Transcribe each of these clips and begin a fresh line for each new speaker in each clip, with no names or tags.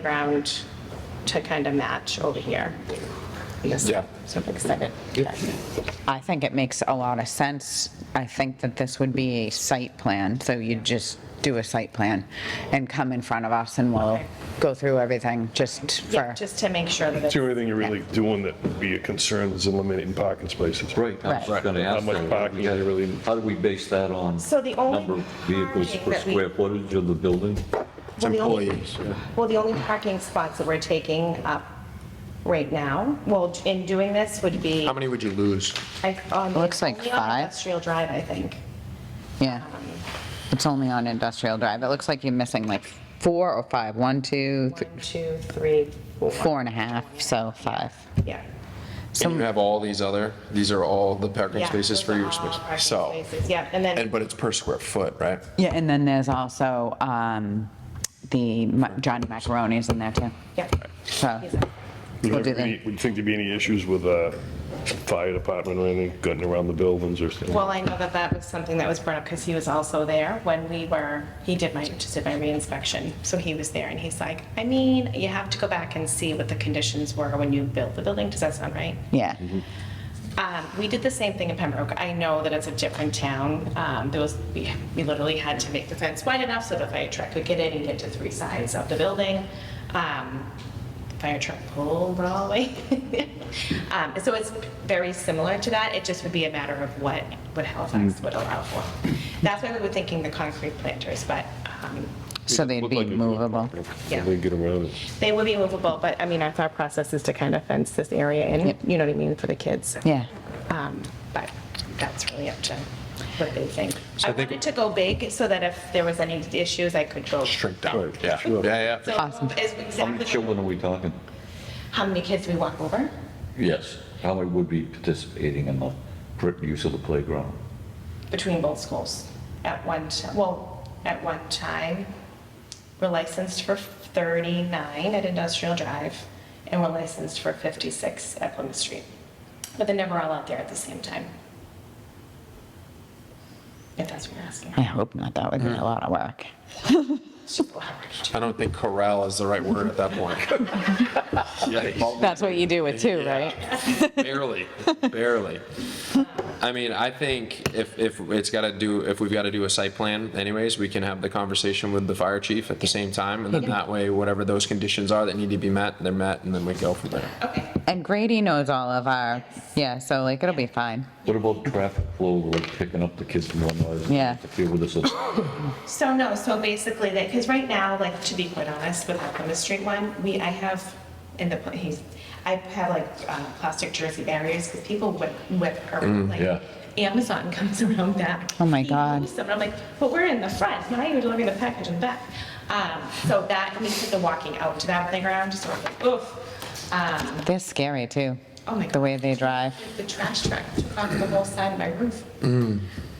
playground to kind of match over here. I guess
Yeah.
Super excited.
I think it makes a lot of sense. I think that this would be a site plan, so you just do a site plan and come in front of us and we'll go through everything just
Yeah,
for,
just to make sure that it's.
The only thing you're really doing that would be a concern is eliminating parking spaces.
Right, I was
Right.
just going to
How
ask
much
that.
parking
Yeah,
you really-
How do we base that on?
So the only
Number of vehicles
parking
per
that we-
square footage of the building?
It's
Well, the only-
employees. yeah.
Well, the only parking spots that we're taking up right now, well, in doing this would be.
How many would you lose?
I- um,
Looks like
only on
five.
Industrial Drive, I think.
yeah. It's only on Industrial Drive. It looks like you're missing like four or five, one, two, th-
One, two, three, four.
four and a half, so five.
Yeah.
So
And you have all these other, these are all the parking
Yeah,
spaces for
those are
your
all
space.
parking
So,
spaces, Yeah, and then.
and, but it's per square foot, right?
Yeah, and then there's also um, the Ma- Johnny Macaroni's in there too.
Yeah.
So we'll do
Would
that.
you think there'd be any issues with uh fire department or anything getting around the buildings or something?
Well, I know that that was something that was brought up because he was also there when we were, he did my disciplinary inspection. So he was there and he's like, I mean, you have to go back and see what the conditions were when you built the building. Does that sound right?
Yeah,
Um, We did the same thing in Pembroke. I know that it's a different town. Um, There was, we we literally had to make the fence wide enough so the fire truck could get in and get to three sides of the building. Um, the Fire truck pulled all the way. Um, So it's very similar to that. It just would be a matter of what, what Halifax would allow for. That's why we were thinking the concrete planters, but um,
so they'd
Look
be
like a good
movable.
parking.
Yeah.
They get around it.
they would be movable. But I mean, our thought process is to kind of fence this area in, you know what I mean, for the kids.
Yeah.
Um, But that's really up to what they think.
So
I
I think-
wanted to go big so that if there was any issues, I could go.
Shrink down.
Right,
Yeah,
sure.
yeah,
So
yeah.
Awesome.
is
How many
exactly
children are we talking?
how many kids we walk over.
Yes. How many would be participating in the correct use of the playground?
between both schools at one, ti- well, at one time. We're licensed for 39 at Industrial Drive, and we're licensed for 56 at Plymouth Street. But they're never all out there at the same time. If that's what you're asking.
I hope not. That would be a lot of work.
I don't think corral is the right word at that point. Yikes.
That's what you do with two, right?
Barely, barely. I mean, I think if, if it's got to do, if we've got to do a site plan anyways, we can have the conversation with the fire chief at the same time. And then that way, whatever those conditions are that need to be met, they're met, and then we go from there.
Okay,
And Grady knows all of our, yeah, so like it'll be fine.
What about traffic flow, like picking up the kids from one side?
Yeah.
Interfere with this?
so no, so basically that, because right now, like, to be quite honest, with our Plymouth Street one, we, I have in the, he's, I have like uh, plastic jersey barriers because people whip, whip around, like,
yeah.
Amazon comes around back.
Oh my
He
God.
moves them, And I'm like, but we're in the front, now you're delivering the package in the back. Um, so that, we took the walking out to that playground, just sort of like, oof. Um,
They're scary too.
Oh my
The way they drive.
the trash truck took off the whole side of my roof.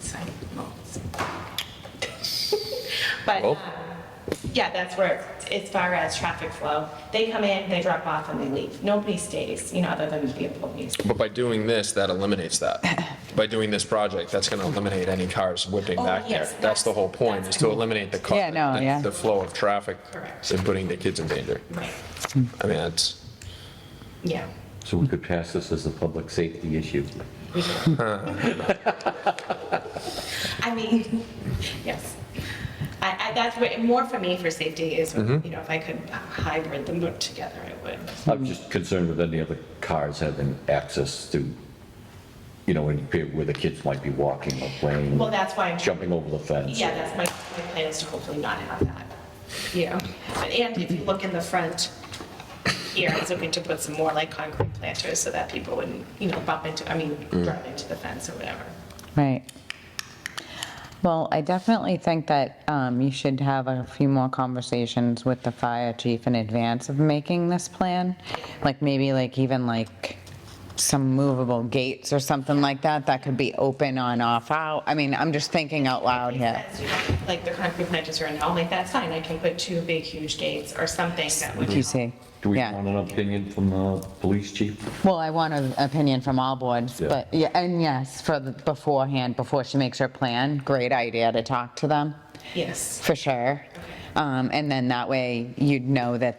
So, well, it's- But, um, yeah, that's where, it's- as far as traffic flow, they come in, they drop off and they leave. Nobody stays, you know, other than the employees.
But by doing this, that eliminates that. By doing this project, that's going to eliminate any cars whipping
Oh,
back there.
yes,
That's the whole point, is
that's-
to eliminate the car.
Yeah, no,
the-
yeah.
The flow of traffic
Correct.
and putting the kids in danger.
Right.
I mean, that's,
Yeah.
So we could pass this as a public safety issue.
I mean, yes. I, I, that's what, more for me for safety is, you know, if I could hybrid them together, I would.
I'm just concerned with any other cars having access to, you know, and where the kids might be walking or playing,
Well, that's why I'm,
jumping over the fence.
yeah, that's my, my plan is to hopefully not have that, you know. And if you look in the front here, I was hoping to put some more like concrete planters so that people wouldn't, you know, bump into, I mean, drive into the fence or whatever.
Right. Well, I definitely think that um, you should have a few more conversations with the fire chief in advance of making this plan. Like maybe like even like some movable gates or something like that, that could be open on off out. I mean, I'm just thinking out loud here.
As you know, Like the concrete planters are in, I'm like, that's fine, I can put two big huge gates or something that would.
You see?
Do we
Yeah.
want an opinion from the police chief?
Well, I want an opinion from all boards,
Yeah.
but, yeah, and yes, for the beforehand, before she makes her plan, great idea to talk to them,
Yes.
for sure. Um, And then that way, you'd know that